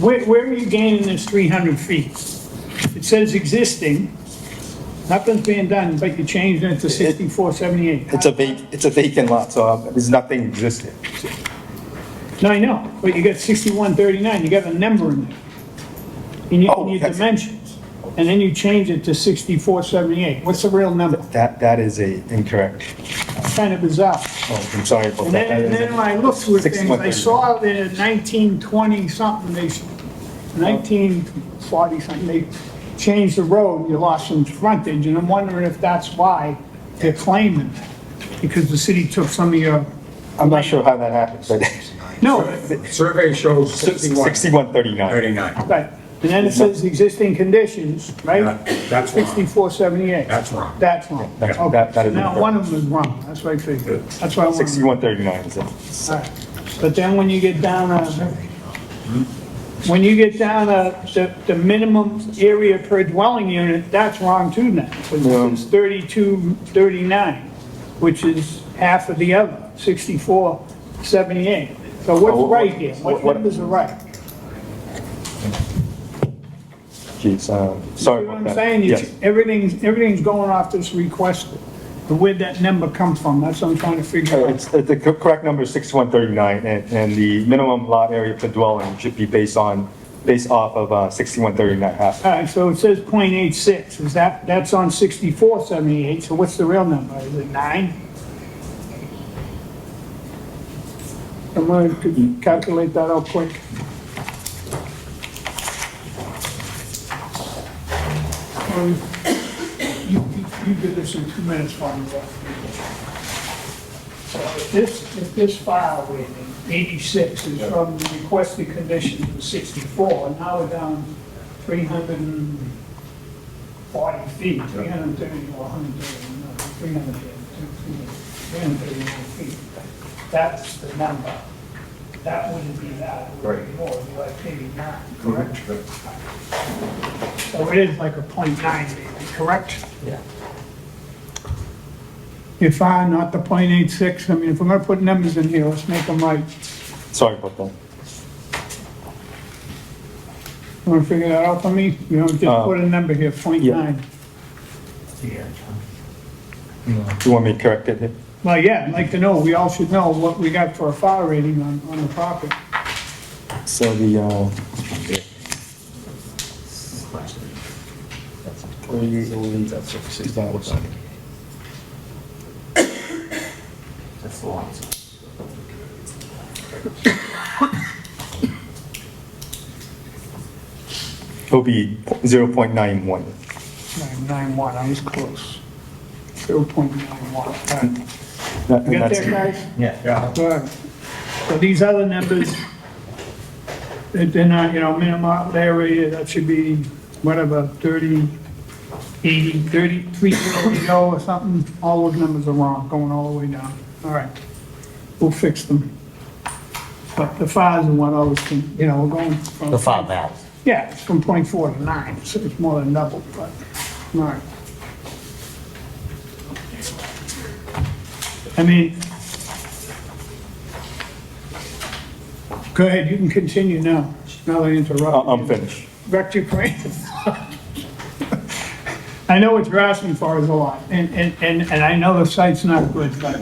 Where, where are you gaining this 300 feet? It says existing, nothing's being done, but you changed it to 6478. It's a vac, it's a vacant lot, so um, there's nothing existing. No, I know, but you got 6139, you got a number in there. In your, Oh, in your that's- dimensions, and then you change it to 6478. What's the real number? That, that is a incorrect, Kind of bizarre. oh, I'm sorry about And that. then, and That is then a- when I looked through things, I 6139. saw the 1920 something, they, 1940 something, they changed the road, you lost some frontage, and I'm wondering if that's why they're claiming, that, because the city took some of your, I'm not sure how that happened, but no, Survey shows 61, sixty-one thirty-nine. 39. right, and then it says existing conditions, right? That- that's wrong. 6478. That's wrong. That's wrong. That- that- that Okay, is now, incorrect. one of them is wrong, that's what I figured, that's why I wanted. Sixty-one thirty-nine is it? Alright, But then when you get down, uh, when you get down, uh, the, the minimum area per dwelling unit, that's wrong too now. It's 32, 39, which is half of the other, 64, 78. So Oh, what's right here? What what- numbers are right? Jeez, um, sorry You know about what I'm that. saying? You- Yes. Everything's, everything's going off this request. Where'd that number come from? That's what I'm trying to figure Uh, out. It's, uh, the co- correct number is sixty-one thirty-nine, and, and the minimum lot area per dwelling should be based on, based off of uh, sixty-one thirty-nine Uh, half. All right, Uh, so it says .86, is that, that's on 6478, so what's the real number? Is it nine? Someone could calculate that out quick. Um, You, you you did this in two minutes for me, Rob. So if this, if this file with 86 is from the requested condition to 64, and now we're down 340 feet, 330 or 130, no, 330, 331 feet. That's the number. That wouldn't be that, it would be more, it'd be like maybe nine, correct? So it is like a point nine, maybe, correct? Yeah. If I, not the point eight six, I mean, if we're gonna put numbers in here, let's make them right. Sorry about that. You wanna figure that out for me? You know, just Uh, put a number here, point yeah. nine. You want me to correct it? Well, yeah, I'd like to know, we all should know what we got for a fire rating on, on the property. So the, uh, That's the one. it'll be zero point nine one. Nine, nine one, I was close. Zero point nine one, all right. That- You got that's- that, guys? Yeah, Right. So these other numbers, they- they're not, you know, minimum area, that should be whatever, 30, 80, 30, 330 oh, or something. All those numbers are wrong, going all the way down. All right, we'll fix them. But the fives and what always can, you know, we're going from. The five hours. Yeah, it's from point four to nine, so it's more than double, but, all right. I mean, go ahead, you can continue now, now that I interrupted. I- Uh, I'm you. finished. Wrecked your brain. I know what you're asking for is a lot, and, and, and and I know the site's not good, but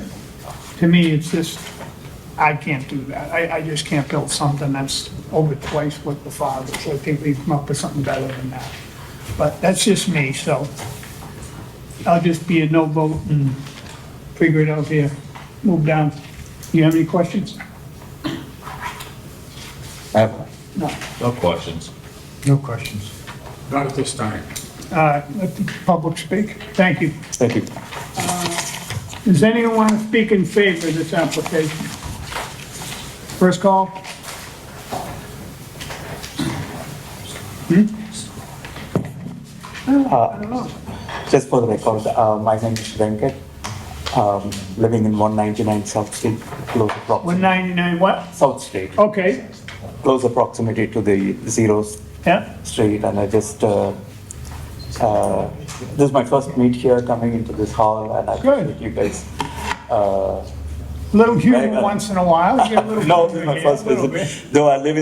to me, it's just, I can't do that. I, I just can't build something that's over twice what the father, so I think we've come up with something better than that. But that's just me, so I'll just be a no vote and figure it out here. Move down. You have any questions? No. No questions. No questions. not at this time. All right, Uh, let the public speak. Thank you. Thank you. Does anyone want to speak in favor of this application? First call? Hmm? I don't know. Just for the record, uh, my name is Venkat, um, living in 199 South Street, close approximity, 199 what? South Street, Okay, close proximity to the Zero yeah, Street, and I just, uh, uh, this is my first meet here, coming into this hall, and I Good. appreciate you guys. Uh, little Very humor good. once in a while. Get a little No, this is humor my here, a first little visit, though I live in